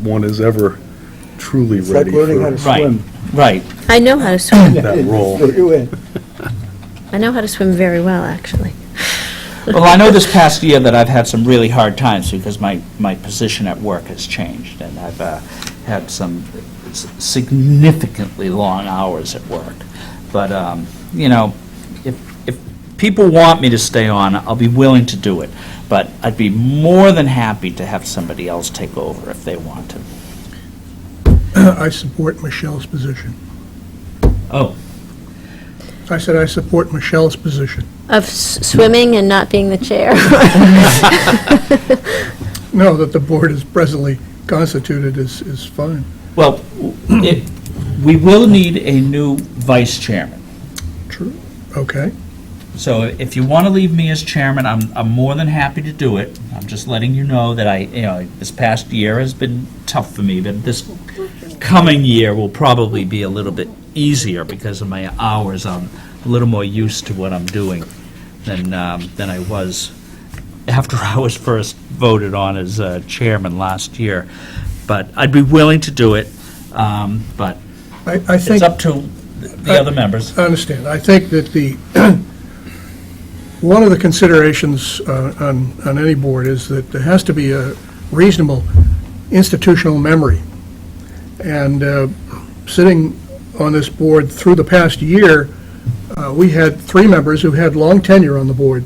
one is ever truly It's like ready learning how to for swim. Right, I know how to swim. that role. Put you in. Hmm. I know how to swim very well, actually. Well, I know this past year that I've had some really hard times because my, my position at work has changed, and I've uh, had some s- significantly long hours at work. But, um, you know, if, if people want me to stay on, I'll be willing to do it, but I'd be more than happy to have somebody else take over if they want to. I support Michelle's position. Oh. I said I support Michelle's position. Of s- swimming and not being the chair. No, that the board is presently constituted is, is fine. Well, it, we will need a new vice chairman. True. Okay. So if you want to leave me as chairman, I'm, I'm more than happy to do it. I'm just letting you know that I, you know, this past year has been tough for me, but this coming year will probably be a little bit easier because of my hours. I'm a little more used to what I'm doing than, um, than I was after I was first voted on as uh, chairman last year. But I'd be willing to do it, um, but I, I think, it's up to the other members. I understand. I think that the, one of the considerations uh, on, on any board is that there has to be a reasonable institutional memory. And uh, sitting on this board through the past year, uh, we had three members who had long tenure on the board.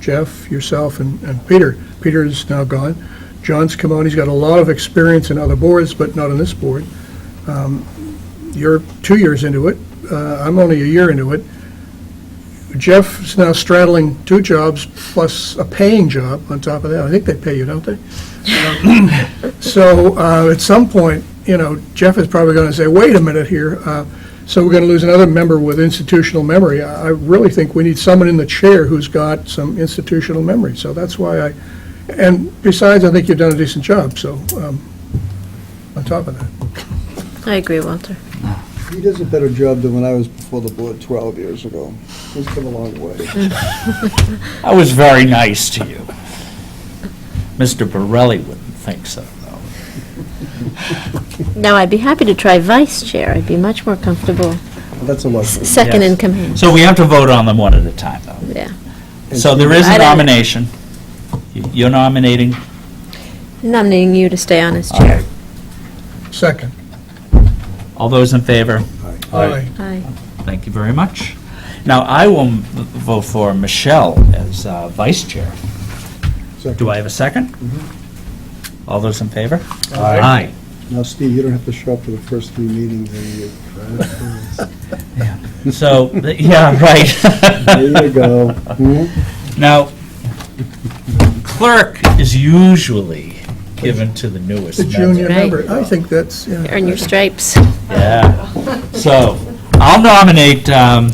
Jeff, yourself, and, and Peter. Peter is now gone. John's come on, he's got a lot of experience in other boards, but not on this board. Um, You're two years into it, Uh, I'm only a year into it. Jeff's now straddling two jobs plus a paying job on top of that. I think they pay you, don't they? So uh, at some point, you know, Jeff is probably going to say, wait a minute here, uh, so we're going to lose another member with institutional memory. I I really think we need someone in the chair who's got some institutional memory, so that's why I, and besides, I think you've done a decent job, so, um, on top of that. I agree, Walter. He does a better job than when I was before the board 12 years ago. He's come a long way. I was very nice to you. Mr. Borelli wouldn't think so, though. Now, I'd be happy to try vice chair. I'd be much more comfortable, That's a luxury. s- second in Yes. command, So we have to vote on them one at a time, though. yeah. So there is I a don't- nomination. You- You're nominating, Nominating you to stay on as chair. Second. all those in favor? Aye. Aye. Thank you very much. Now, I will m- vote for Michelle as uh, vice chair. Do I have a second? Mm-hmm. All those in favor? Aye. Now, Steve, you don't have to show up for the first three meetings anymore. So, th- yeah, right. There you go. Hmm? Now, clerk is usually given to the newest The member. junior Right. member, I think that's, yeah. Earn your stripes. Yeah. So, I'll nominate um,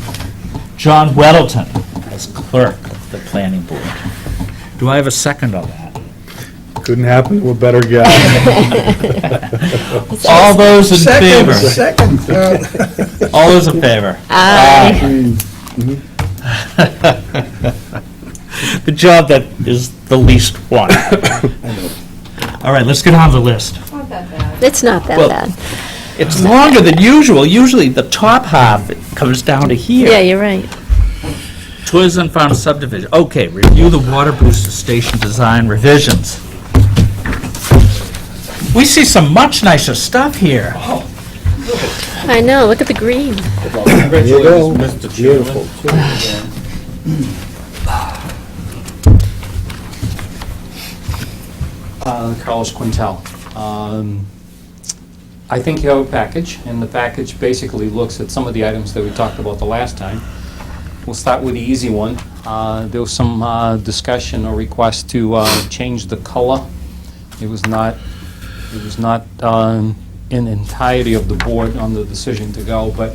John Weddleton as clerk of the planning board. Do I have a second on that? Couldn't happen to a better guy. All those in Second, favor? second. Uh, All those in favor? Ah. Aye. The job that is the least one. All right, let's get on the list. It's not that Well- bad. It's longer than usual. Usually, the top half comes down to here. Yeah, you're right. Toys and Farm subdivision, okay, review the water booster station design revisions. We see some much nicer stuff here. I know, look at the green. There you go. Beautiful. Uh, Carlos Quintel. Um, I think you have a package, and the package basically looks at some of the items that we talked about the last time. We'll start with the easy one. Uh, There was some uh, discussion or request to uh, change the color. It was not, it was not um, in entirety of the board on the decision to go, but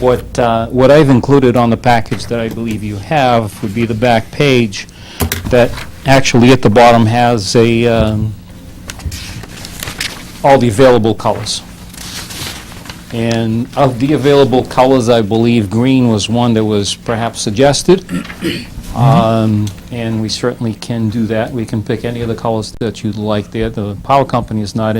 what, uh, what I've included on the package that I believe you have would be the back page that actually at the bottom has a, um, all the available colors. And of the available colors, I believe green was one that was perhaps suggested. Um, And we certainly can do that. We can pick any of the colors that you'd like there. The power company is not in.